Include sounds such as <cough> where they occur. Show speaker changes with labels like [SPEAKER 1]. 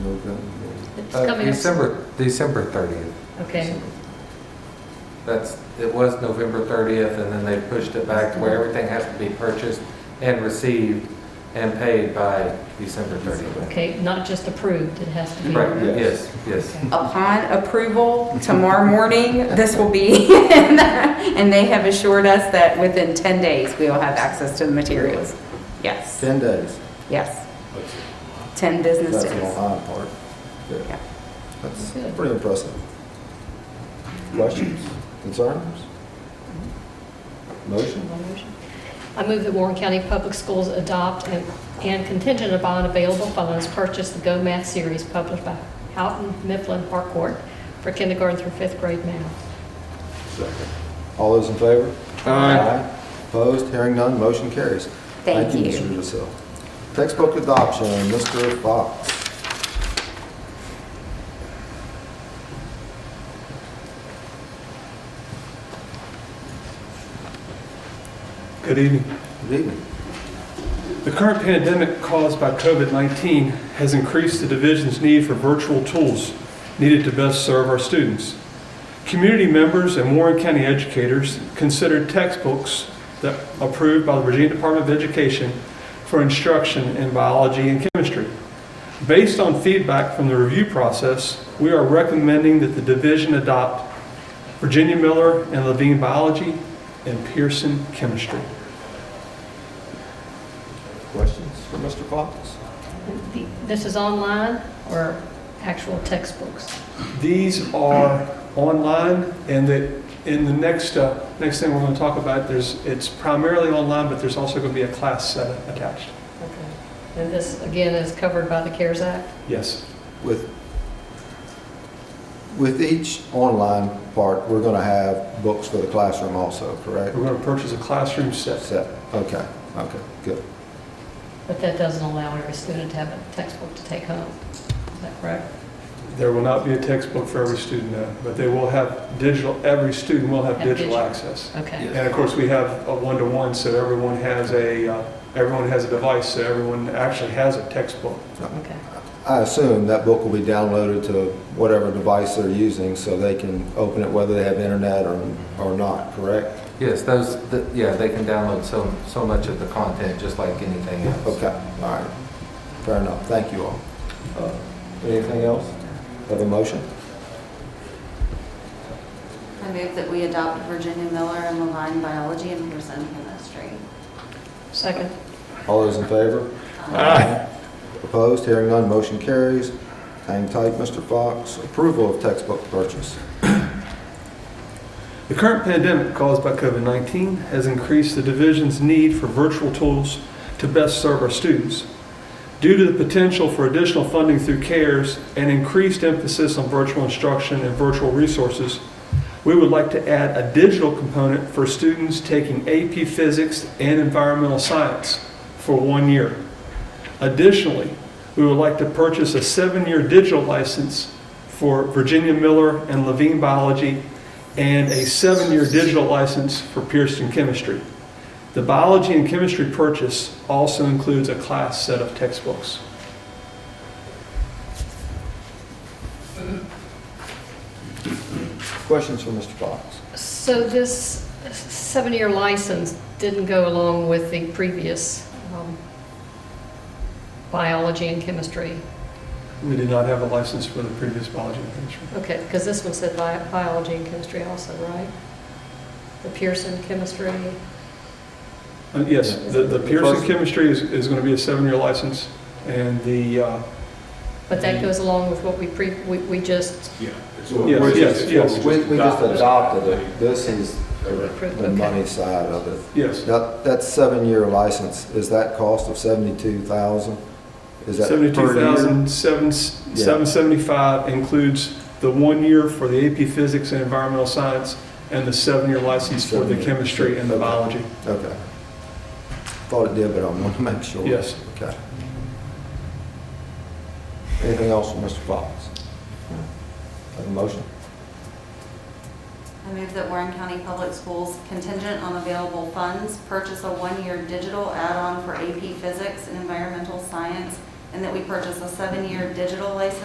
[SPEAKER 1] Uh,
[SPEAKER 2] coming up.
[SPEAKER 1] December, December 30th.
[SPEAKER 2] Okay,
[SPEAKER 1] That's, it was November 30th, and then they pushed it back to where
[SPEAKER 2] Mm-hmm.
[SPEAKER 1] everything has to be purchased and received and paid by December 30th.
[SPEAKER 2] okay, not just approved, it has to be.
[SPEAKER 1] Right, yes, yes.
[SPEAKER 3] Upon approval tomorrow morning, this will be, <laughs> in the- and they have assured us that within 10 days, we will have access to the materials. Yes,
[SPEAKER 4] 10 days.
[SPEAKER 3] yes,
[SPEAKER 4] That's
[SPEAKER 3] 10 business
[SPEAKER 4] that's the
[SPEAKER 3] days.
[SPEAKER 4] Ohio part. Yeah.
[SPEAKER 3] Yeah.
[SPEAKER 4] That's
[SPEAKER 2] Good.
[SPEAKER 4] pretty impressive. Questions, concerns? Motion?
[SPEAKER 2] I move that Warren County Public Schools adopt and- and contingent upon available funds, purchase the Go Math series published by Houghton Mifflin Harcourt for kindergarten through fifth grade math.
[SPEAKER 4] All those in favor? Aye. Opposed, hearing none, motion carries.
[SPEAKER 3] Thank you.
[SPEAKER 4] Mr. Giselle. Textbook adoption, Mr. Fox.
[SPEAKER 5] Good evening.
[SPEAKER 4] Good evening.
[SPEAKER 5] The current pandemic caused by COVID-19 has increased the division's need for virtual tools needed to best serve our students. Community members and Warren County educators considered textbooks that approved by the Virginia Department of Education for instruction in biology and chemistry. Based on feedback from the review process, we are recommending that the division adopt Virginia Miller and Levine Biology and Pearson Chemistry.
[SPEAKER 4] Questions for Mr. Fox?
[SPEAKER 2] The- This is online or actual textbooks?
[SPEAKER 5] These are online, and that, in the next, uh, next thing we're going to talk about, there's, it's primarily online, but there's also going to be a class set attached.
[SPEAKER 2] Okay. And this, again, is covered by the CARES Act?
[SPEAKER 5] Yes.
[SPEAKER 4] With, with each online part, we're going to have books for the classroom also, correct?
[SPEAKER 5] We're going to purchase a classroom set.
[SPEAKER 4] Set, okay, okay, good.
[SPEAKER 2] But that doesn't allow every student to have a textbook to take home. Is that correct?
[SPEAKER 5] There will not be a textbook for every student, no, but they will have digital, every student will have
[SPEAKER 2] Have
[SPEAKER 5] digital
[SPEAKER 2] digital.
[SPEAKER 5] access.
[SPEAKER 2] Okay.
[SPEAKER 5] And of course, we have a one-to-one, so everyone has a, uh, everyone has a device, so everyone actually has a textbook.
[SPEAKER 2] Okay.
[SPEAKER 4] I assume that book will be downloaded to whatever device they're using so they can open it whether they have internet or, or not, correct?
[SPEAKER 1] Yes, those, th- yeah, they can download so, so much of the content, just like anything else.
[SPEAKER 4] Okay, all right. Fair enough, thank you all. Uh, Anything else? Have a motion?
[SPEAKER 6] I move that we adopt Virginia Miller and Levine Biology and Pearson Chemistry.
[SPEAKER 2] Second.
[SPEAKER 4] All those in favor? Aye. Opposed, hearing none, motion carries. Hang tight, Mr. Fox. Approval of textbook purchase.
[SPEAKER 5] The current pandemic caused by COVID-19 has increased the division's need for virtual tools to best serve our students. Due to the potential for additional funding through CARES and increased emphasis on virtual instruction and virtual resources, we would like to add a digital component for students taking AP Physics and Environmental Science for one year. Additionally, we would like to purchase a seven-year digital license for Virginia Miller and Levine Biology and a seven-year digital license for Pearson Chemistry. The biology and chemistry purchase also includes a class set of textbooks.
[SPEAKER 4] Questions for Mr. Fox?
[SPEAKER 2] So this seven-year license didn't go along with the previous um, biology and chemistry?
[SPEAKER 5] We did not have a license for the previous biology and chemistry.
[SPEAKER 2] Okay, because this one said bi- biology and chemistry also, right? The Pearson chemistry,
[SPEAKER 5] Uh, Yes, the the
[SPEAKER 4] The
[SPEAKER 5] Pearson
[SPEAKER 4] first-
[SPEAKER 5] Chemistry is is going to be a seven-year license, and the, uh,
[SPEAKER 2] but that goes along with what we pre, we we just
[SPEAKER 7] Yeah.
[SPEAKER 5] Yes,
[SPEAKER 4] We're
[SPEAKER 5] yes,
[SPEAKER 4] just-
[SPEAKER 5] yes.
[SPEAKER 4] We, we just adopted it. This is the
[SPEAKER 2] approved.
[SPEAKER 4] the money side of it.
[SPEAKER 5] yes,
[SPEAKER 4] That, that seven-year license, is that cost of seventy-two thousand? Is that per year?
[SPEAKER 5] 72775 includes the one year for the AP Physics and Environmental Science and the seven-year license for the
[SPEAKER 4] Seven years.
[SPEAKER 5] chemistry and the
[SPEAKER 4] Okay.
[SPEAKER 5] biology.
[SPEAKER 4] Okay. Thought it did, but I want to <laughs> make sure.
[SPEAKER 5] Yes.
[SPEAKER 4] Okay. Anything else from Mr. Fox? Have a motion?
[SPEAKER 6] I move that Warren County Public Schools contingent on available funds, purchase a one-year digital add-on for AP Physics and Environmental Science, and that we purchase a seven-year digital license